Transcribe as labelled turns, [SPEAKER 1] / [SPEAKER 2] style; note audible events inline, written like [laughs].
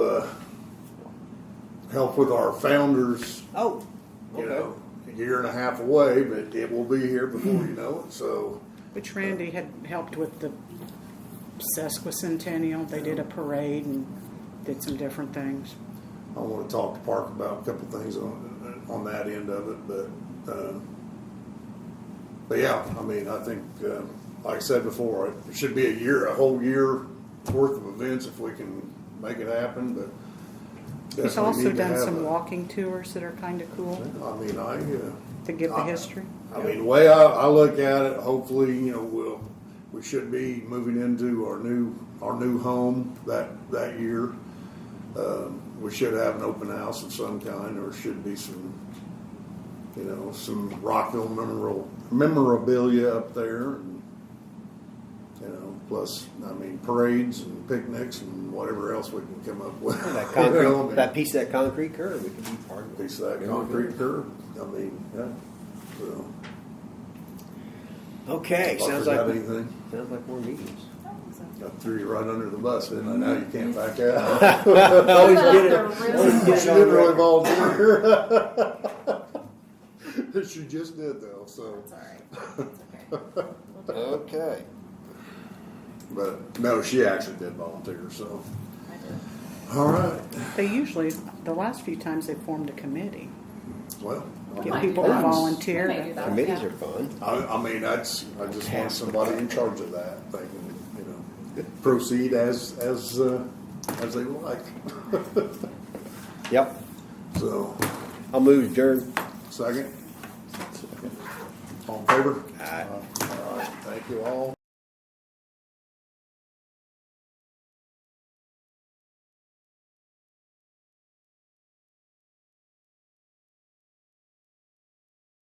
[SPEAKER 1] uh, help with our founders,
[SPEAKER 2] Oh,
[SPEAKER 1] you know, a year and a half away, but it will be here before you know it. So,
[SPEAKER 2] which Randy had helped with the sesquicentennial. They did a parade and did some different things.
[SPEAKER 1] I want to talk to Park about a couple things on on that end of it, but uh, but yeah, I mean, I think uh, like I said before, it should be a year, a whole year worth of events if we can make it happen. But
[SPEAKER 2] He's
[SPEAKER 1] definitely
[SPEAKER 2] also
[SPEAKER 1] need to
[SPEAKER 2] done
[SPEAKER 1] have
[SPEAKER 2] some
[SPEAKER 1] a-
[SPEAKER 2] walking tours that are kind of cool
[SPEAKER 1] I mean, I. Uh,
[SPEAKER 2] to give the
[SPEAKER 1] I-
[SPEAKER 2] history.
[SPEAKER 1] I mean, the way I, I look at it, hopefully, you know, we'll, we should be moving into our new, our new home that, that year. Um, we should have an open house of some kind, or should be some, you know, some Rockville memorial, memorabilia up there. and You know, plus, I mean, parades and picnics and whatever else we can come up with. [laughs]
[SPEAKER 3] That
[SPEAKER 1] You know, I
[SPEAKER 3] concrete,
[SPEAKER 1] mean,
[SPEAKER 3] that piece of that concrete curb, we could be part of it.
[SPEAKER 1] Piece of that concrete curb, I mean, yeah, so.
[SPEAKER 3] Okay,
[SPEAKER 1] I
[SPEAKER 3] sounds
[SPEAKER 1] forgot
[SPEAKER 3] like,
[SPEAKER 1] Anything?
[SPEAKER 3] sounds like more meetings. [laughs]
[SPEAKER 1] I threw you right under the bus, didn't I? Now you
[SPEAKER 2] Mm-hmm.
[SPEAKER 1] can't back [laughs] out. [laughs] Always get it. You
[SPEAKER 3] Always get Oh, it on
[SPEAKER 1] should really
[SPEAKER 3] record.
[SPEAKER 1] volunteer. [laughs] That you just did though, so.
[SPEAKER 4] That's all right. It's okay.
[SPEAKER 3] Okay.
[SPEAKER 1] But no, she actually did volunteer, so.
[SPEAKER 4] I do.
[SPEAKER 1] All right.
[SPEAKER 2] They usually, the last few times, they formed a committee.
[SPEAKER 1] Well,
[SPEAKER 2] Get
[SPEAKER 4] might
[SPEAKER 2] people
[SPEAKER 4] do
[SPEAKER 2] to
[SPEAKER 4] that.
[SPEAKER 2] volunteer.
[SPEAKER 4] We may do that.
[SPEAKER 3] Committees
[SPEAKER 4] Yeah.
[SPEAKER 3] are fun.
[SPEAKER 1] I, I mean, that's, I just want somebody in charge of that. They can, you know, proceed as, as, uh, as they like.
[SPEAKER 3] Yep,
[SPEAKER 1] So,
[SPEAKER 3] I'll move adjourned.
[SPEAKER 1] second. All in favor? All right. Thank you all.